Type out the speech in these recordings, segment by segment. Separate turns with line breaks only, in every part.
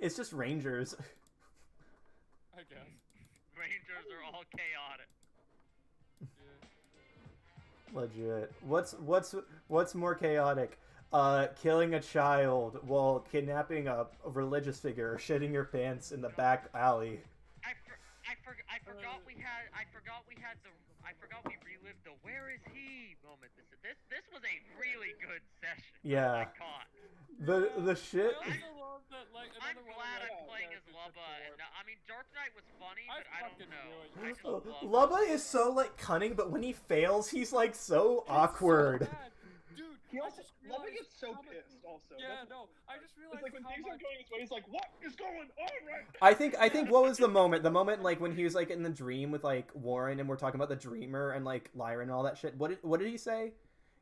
It's just rangers.
I guess.
Rangers are all chaotic.
Yeah.
Legit. What's what's what's more chaotic? Uh, killing a child while kidnapping a religious figure or shitting your pants in the back alley.
I, for, I, for, I forgot we had I forgot we had the I forgot we relived the where is he moment. This this this was a really good session. I
Yeah.
caught.
The the shit
I also love that, like,
I'm
another one
glad
of my
I'm playing as
characters
Lubba.
before.
And not- I mean, Dark Knight was funny,
I
but I,
fucking
don't know.
knew it.
I just love
Lubba is so like cunning, but when he fails, he's like so awkward.
So bad. Dude,
He
I
also
just
Lubba
realized
gets so
how much-
pissed. Also,
Yeah,
That's-
no, I just
It's
realized
like when
how
things
much.
aren't going his way, he's like, "What is going on right now?"
I think I think what was the moment? The moment like when he was like in the dream with like Warren and we're talking about the dreamer and like Lyra and all that shit. What did what did he say?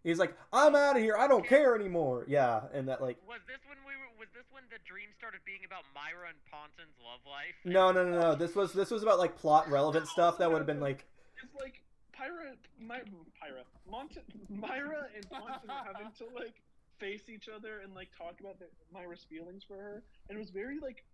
He's like, I'm out of here. I don't care anymore. Yeah, and that like
Was this when we were? Was this when the dream started being about Myra and Ponton's love life?
no no no no. This was this was about like plot relevant stuff that would have been like
It's like Pyra, My, Pyra, Monta, Myra, and Monta were having to like face each other and like talk about the, Myra's feelings for her, and it was very like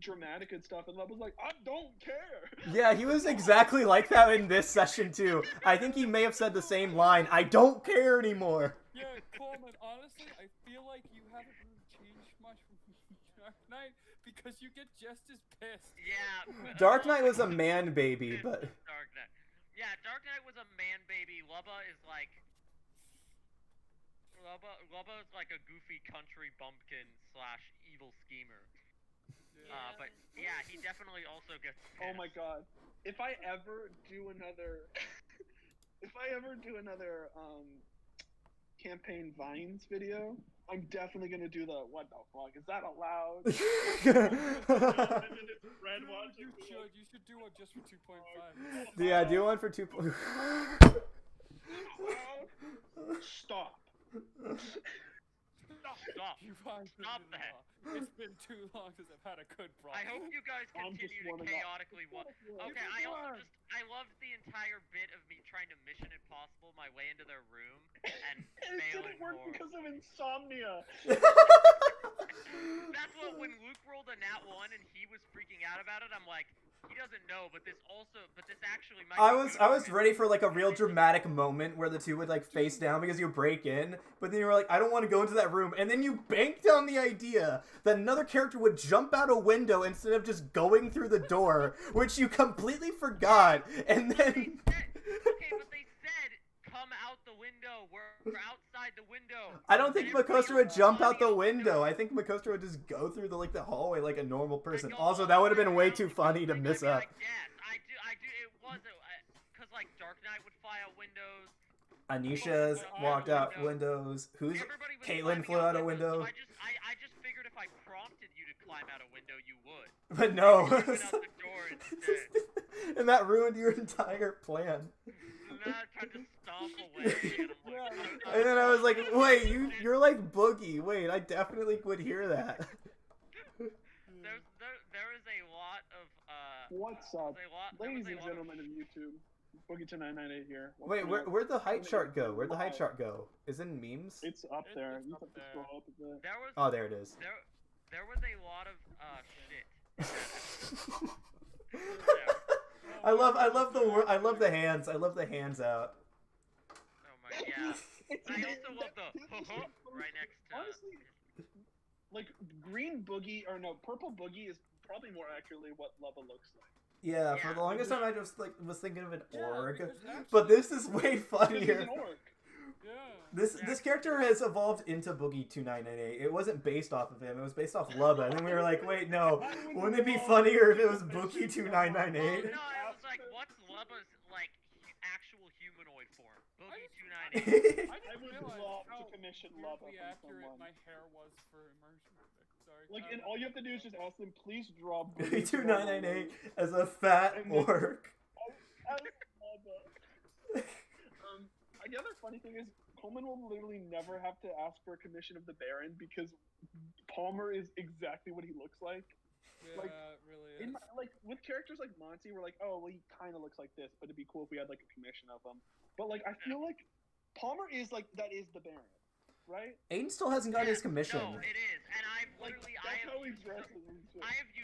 dramatic and stuff. And Love was like, "I don't care."
yeah. He was exactly like that in this session too. I think he may have said the same line. I don't care anymore.
Yeah, Coleman, honestly, I feel like you haven't really changed much from Dark Knight because you get just as pissed.
Yeah.
Dark Knight was a man baby,
Dark
but
Knight. Yeah, Dark Knight was a man baby. Lubba is like. Lubba, Lubba is like a goofy country bumpkin slash evil schemer. Uh, but yeah, he definitely also gets.
Oh my
pissed.
god. If I ever do another if I ever do another um campaign vines video, I'm definitely gonna do the what the fuck? Is that allowed? And then it's Red watching
You
me like,
should, you should do one just for
Oh,
2.5.
yeah, do one for two. po-
"Wow, Stop.
Stop.
You guys did
Stop
it
that.
all. It's been too long since I've had a good problem.
I hope you guys
I'm just
continue to
warming up.
chaotically wa- Okay, I also just I loved the entire bit of me trying to Mission Impossible my way into their room and
It
failing
didn't work
horribly.
because of insomnia.
That's what when Luke rolled a nat one and he was freaking out about it. I'm like, he doesn't know, but this also, but this actually might.
I
be
was
good
I was
him."
ready for like a real dramatic moment where the two would like face down because you break in, but then you were like, I don't want to go into that room, and then you banked on the idea that another character would jump out a window instead of just going through the door, which you completely forgot, and then
They said- okay, but they said come out the window. We're, we're outside the window.
I don't think
And everybody
Makostra would
was
jump out
running
the window.
door.
I think Makostra would just go through the like the hallway like a normal person.
Like,
Also,
oh,
that would have
my
been way
God,
too
because
funny to
I'd be
miss up.
like, yes, I do. I do. It was because like Dark Knight would fly out windows.
Anisha's
Oh,
walked out
window.
windows. Who's
Everybody was
Caitlyn
climbing
flew out a window.
windows, So I just, I, I just figured if I prompted you to climb out a window, you would.
But no.
You went out the door instead.
and that ruined your entire plan.
And then I tried to stomp away. And I'm
Yeah.
like, "I'm not
And then I was like,
doing
wait,
this."
you you're like Boogie. Wait, I definitely would hear that.
There's there, there is a lot of uh.
What's
there's
up?
a lot- there
Ladies
was a
and
lot of-
gentlemen of YouTube, Boogie to 998 here.
Wait,
Welcome
where
up.
where'd the height chart go? Where'd the height chart go? Is it in memes?
It's up
It's-
there.
it's
you
up
have to
there.
scroll up a bit.
There was
Oh there it is.
there there was a lot of uh shit.
I love I love the wor- I love the hands. I love the hands out.
Oh my yeah. I also love the huh, right next to. oh,
Honestly, like green boogie or no purple boogie is probably more accurately what lava looks like.
Yeah, for
Yeah.
the longest time I just like was thinking of an
Yeah,
org.
because actually-
But this is way
This is
funnier.
an orc.
Yeah.
This this character has evolved into Boogie Two Nine Nine Eight. It wasn't based off of him. It was based off Lubba, and then we were like, wait, no. Oh, Wouldn't it be funnier if it was Boogie Two Nine Nine
Oh
Eight?
no, I was like, what's Lubba's like hu- actual humanoid form? Boogie
just-
two ninety.
I,
I
just
would
realized
love
how
to commission lava
weirdly
from
accurate
someone.
my hair was for immersion. Sorry.
Like,
um,
and all you have to do is just ask them, please draw
Boogie
boogie
Two Nine Nine Eight as a fat orc.
as lava. um, and the other funny thing is Coleman will literally never have to ask for a commission of the Baron because Palmer is exactly what he looks like.
Yeah,
like,
it really is.
In my, like with characters like Monty, we're like, oh, well, he kind of looks like this, but it'd be cool if we had like a commission of him. But like, I feel like Palmer is like that is the Baron. right?
Aiden still hasn't gotten his commission.
No, it is, and I've
Like
literally I
that's
have
how we
used
dress
some-
in these
I have used